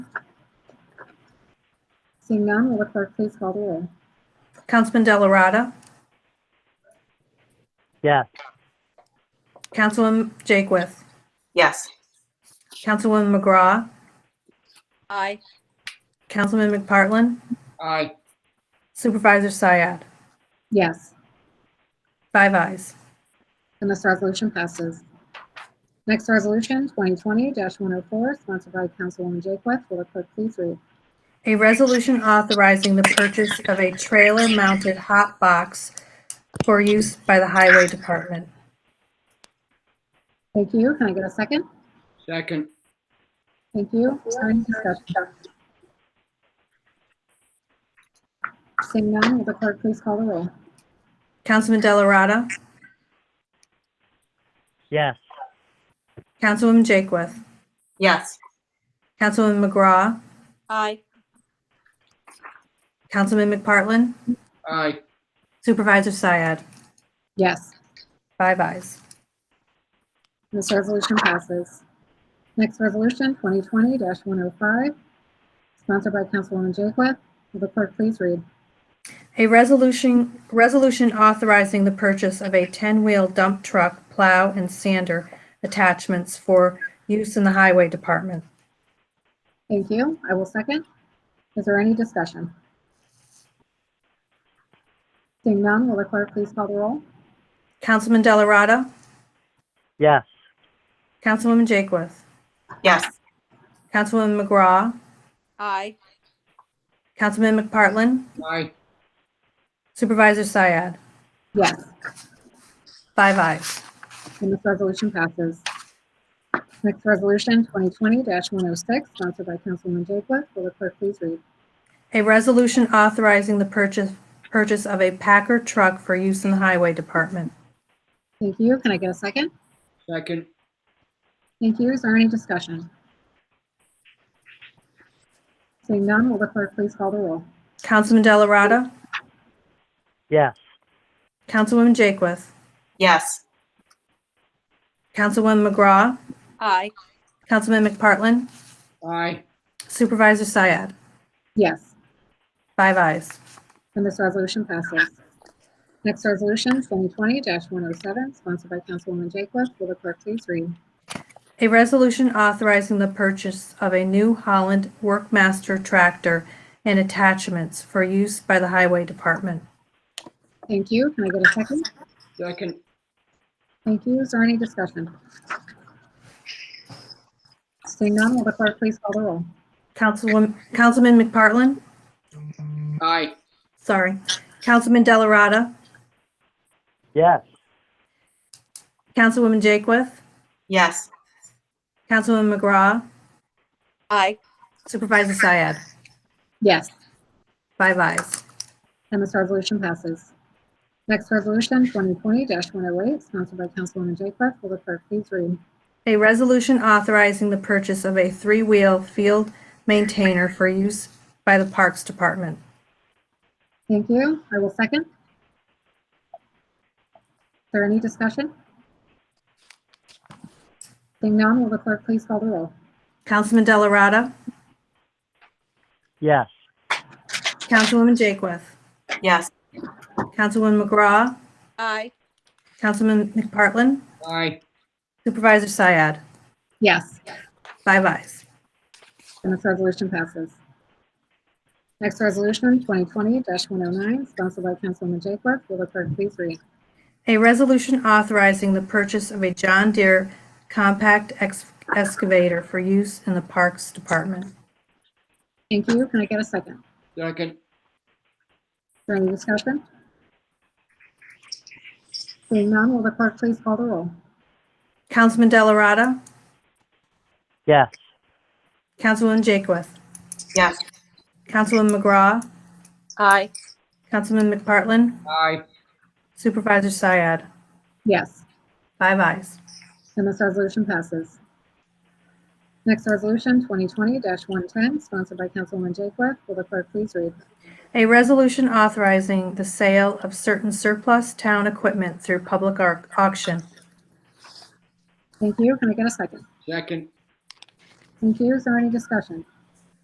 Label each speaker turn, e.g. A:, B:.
A: Seeing none, will the clerk please call the roll?
B: Councilman Delarada.
C: Yes.
B: Councilman Jakewith.
D: Yes.
B: Councilwoman McGraw.
E: aye,
B: Councilman McPartlin.
D: Aye.
B: Supervisor Syed.
A: Yes,
B: Five ayes.
A: and this resolution passes. Next resolution, 2020-104, sponsored by Councilwoman Jaketh. Will the clerk please read?
B: A resolution authorizing the purchase of a trailer-mounted hot box for use by the Highway Department.
A: Thank you. Can I get a second?
D: Second.
A: Thank you. Is there Any discussion? Seeing none, will the clerk please call the roll?
B: Councilman Delarada.
C: Yes.
B: Councilwoman Jakewith.
D: Yes.
B: Councilwoman McGraw.
E: aye,
B: Councilman McPartlin.
D: Aye.
B: Supervisor Syed.
A: Yes,
B: Five ayes.
A: this resolution passes. Next resolution, 2020-105, sponsored by Councilwoman Jaketh. Will the clerk please read?
B: A resolution, resolution authorizing the purchase of a 10-wheel dump truck, plow, and sander attachments for use in the Highway Department.
A: Thank you. I will second. Is there any discussion? Seeing none, will the clerk please call the roll?
B: Councilman Delarada.
C: Yes.
B: Councilwoman Jakewith.
D: Yes.
B: Councilwoman McGraw.
E: aye,
B: Councilman McPartlin.
D: Aye.
B: Supervisor Syed.
A: Yes,
B: Five ayes.
A: and this resolution passes. Next resolution, 2020-106, sponsored by Councilwoman Jaketh. Will the clerk please read?
B: A resolution authorizing the purchase, purchase of a Packer truck for use in the Highway Department.
A: Thank you. Can I get a second?
D: Second.
A: Thank you. Is there any discussion? Seeing none, will the clerk please call the roll?
B: Councilman Delarada.
C: Yes.
B: Councilwoman Jakewith.
D: Yes.
B: Councilwoman McGraw.
E: aye,
B: Councilman McPartlin.
D: Aye.
B: Supervisor Syed.
A: Yes,
B: Five ayes.
A: and this resolution passes. Next resolution, 2020-107, sponsored by Councilwoman Jaketh. Will the clerk please read?
B: A resolution authorizing the purchase of a New Holland Workmaster tractor and attachments for use by the Highway Department.
A: Thank you. Can I get a second?
D: Second.
A: Thank you. Is there any discussion? Seeing none, will the clerk please call the roll?
B: Councilwoman, Councilman McPartlin?
D: Aye.
B: Sorry. Councilman Delarada?
C: Yes.
B: Councilwoman Jakewith?
D: Yes.
B: Councilwoman McGraw?
E: aye,
B: Supervisor Syed?
A: Yes,
B: Five ayes.
A: and this resolution passes. Next resolution, 2020-108, sponsored by Councilwoman Jaketh. Will the clerk please read?
B: A resolution authorizing the purchase of a three-wheel field maintainer for use by the Parks Department.
A: Thank you. I will second. Is there any discussion? Seeing none, will the clerk please call the roll?
B: Councilman Delarada?
C: Yes.
B: Councilwoman Jakewith?
D: Yes.
B: Councilwoman McGraw?
E: aye,
B: Councilman McPartlin?
D: Aye.
B: Supervisor Syed?
A: Yes,
B: Five ayes.
A: and this resolution passes. Next resolution, 2020-109, sponsored by Councilwoman Jaketh. Will the clerk please read?
B: A resolution authorizing the purchase of a John Deere compact ex- excavator for use in the Parks Department.
A: Thank you. Can I get a second? Is
D: Second.
A: there any discussion? Seeing none, will the clerk please call the roll?
B: Councilman Delarada?
C: Yes.
B: Councilwoman Jakewith?
D: Yes.
B: Councilwoman McGraw?
E: aye,
B: Councilman McPartlin?
D: Aye.
B: Supervisor Syed?
A: Yes.
B: Five ayes.
A: And this resolution passes. Next resolution, 2020-110, sponsored by Councilwoman Jaketh. Will the clerk please read?
B: A resolution authorizing the sale of certain surplus town equipment through public au- auction.
A: Thank you. Can I get a second?
D: Second.
A: Thank you. Is there any discussion?